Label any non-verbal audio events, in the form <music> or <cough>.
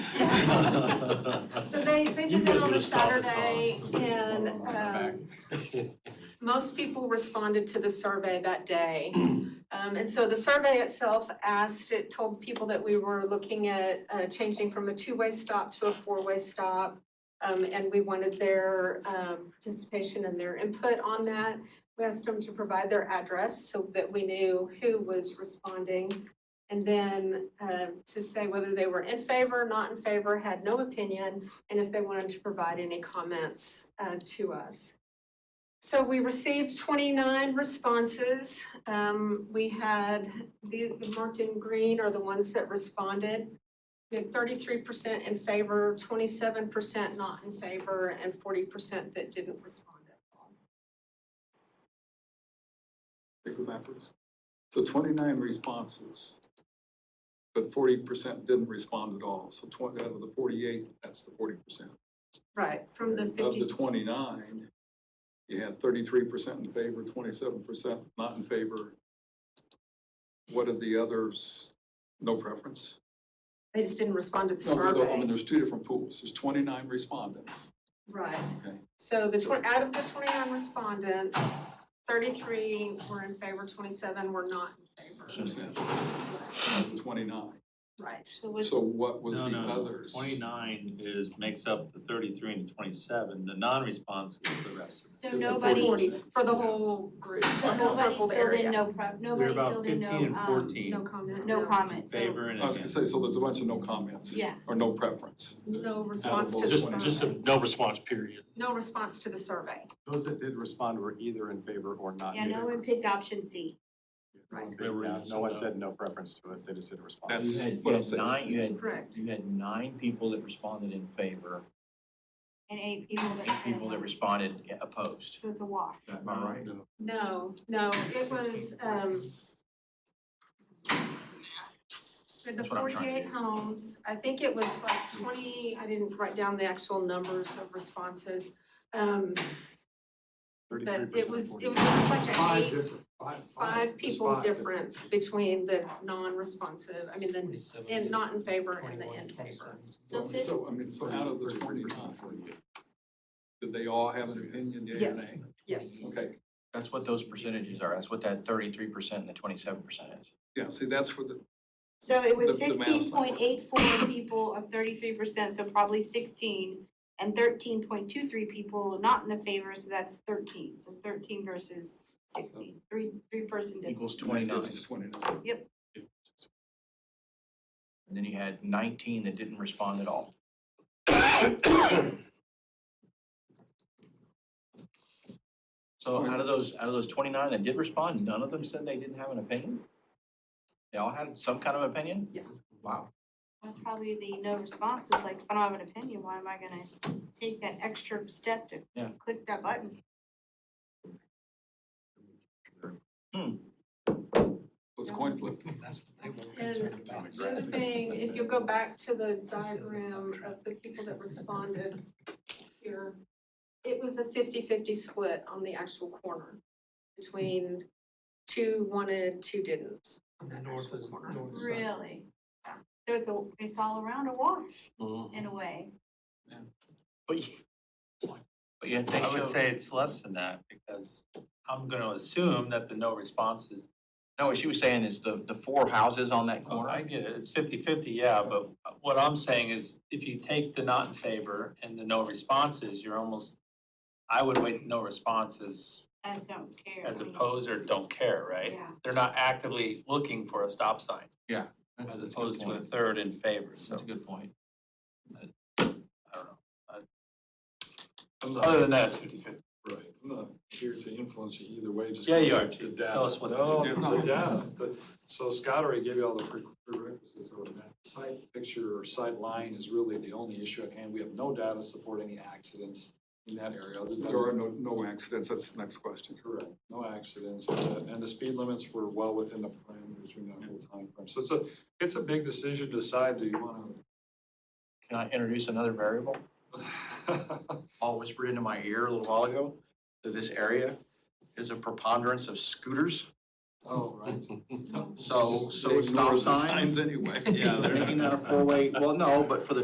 So they, they You did that guys on a would've stopped at Saturday and, I'll back. um, most people responded to the survey that day. Um, and so the survey itself asked, it told people that we were looking at, uh, changing from a two-way stop to a four-way stop. Um, and we wanted their, um, participation and their input on that. We asked them to provide their address so that we knew who was responding. And then, um, to say whether they were in favor, not in favor, had no opinion, and if they wanted to provide any comments, uh, to us. So we received twenty-nine responses. Um, we had, the, the marked in green are the ones that responded. We had thirty-three percent in favor, twenty-seven percent not in favor, and forty percent that didn't respond at all. They go backwards. So twenty-nine responses, but forty percent didn't respond at all. So twenty, out of the forty-eight, that's the forty percent. Right, from the Of fifty. the twenty-nine, you had thirty-three percent in favor, twenty-seven percent not in favor. What of the others? No preference? They just didn't respond to the No, survey. no, I mean, there's two different pools. There's twenty-nine respondents. Right, Okay. so the twen- out of the twenty-nine respondents, thirty-three were in favor, twenty-seven were not in favor. Percent of the twenty-nine. Right, So was, So what was No, the no, no. others? Twenty-nine is, makes up the thirty-three and the twenty-seven, the non-response is the rest. so Is the nobody, 40%. for the whole group, the whole nobody circled filled in area. no, pro- We're nobody about filled in fifteen and no, um, fourteen, No comment. no comments, so, favor and I was gonna say, against. so there's a bunch of no comments. yeah. Or no preference. No response to the Just, just survey. a no response period. No response to the survey. Those that did respond were either in favor or not Yeah, in no one favor. picked option C. Right. They were Yeah, yes No or one no. said no preference to it, they just didn't respond. That's- You had, you what I'm had saying. nine, you had, Correct. you had nine people that responded in favor, And eight people that eight people that said- responded opposed. Um, So it's a wash. Am I right? No, no, it was, um. For the That's what I'm trying to forty-eight do. homes, I think it was like twenty, I didn't write down the actual numbers of responses. Um, Thirty-three but percent. it was, it was almost like a Five eight, different, five, five. five people five different. difference between the non-responsive, I mean, the, in, not in favor and the in favor. So fif- So, I mean, so out of the twenty-nine, did they all have an opinion, yea or Yes. nay? Yes, Okay, That's what those percentages are, that's what that thirty-three percent and the twenty-seven percent is. yeah, see, that's for the, So it was The- the math's fifteen not point working. eight four people of thirty-three percent, so probably sixteen. And thirteen point two three people not in the favor, so that's thirteen, so thirteen versus sixteen, three, three person difference. Equals twenty-nine, It's twenty-nine. and then you had nineteen that didn't respond at all. <coughs> So out of those, out of those twenty-nine that did respond, none of them said they didn't have an opinion? They all had some kind of opinion? yes. Wow. That's probably the no response, is like, if I don't have an opinion, why am I gonna take that extra step to Yeah. click that button? Let's coin flip. And the other thing, if you go back to the diagram of the people that responded here, it was a 50-50 split on the actual corner between two wanted, two didn't on that North actual is- corner. north is- Really? So it's a, it's all around a wash in a way. But you, but you had they I would showed- say it's less than that, because I'm gonna assume that the no response is, no, what she was saying is the, the four houses on that well, corner. I get it, it's fifty-fifty, yeah, but what I'm saying is, if you take the not in favor and the no responses, you're almost, I would wait no responses I just don't care. as I mean, opposed or don't care, right? Yeah. They're not actively looking for a stop sign, That's- as that's a good opposed to a point. third in favor, so, That's a good point. I don't know. I'm Other not, than that, Oh, it's fifty-fifty. right, I'm not here to influence you either way, just. Yeah, you are, The Chief. data. Tell us what to No, do. the data, the- so Scott already gave you all the pre- prerequisites of that. Site picture or sight line is really the only issue at hand. We have no data supporting any accidents in that area. other than- There are no, no accidents, that's the next question. Correct, no accidents, and the- and the speed limits were well within the parameters during that whole timeframe. So it's a, it's a big decision to decide, do you want Can I introduce another variable? to? Paul whispered into my ear a little while ago that this area is a preponderance of scooters. <laughs> Oh, right. So, so They stop ignore the signs. Signs anyway. <laughs> Yeah, they're not- Making that a four-way, well, no, but for the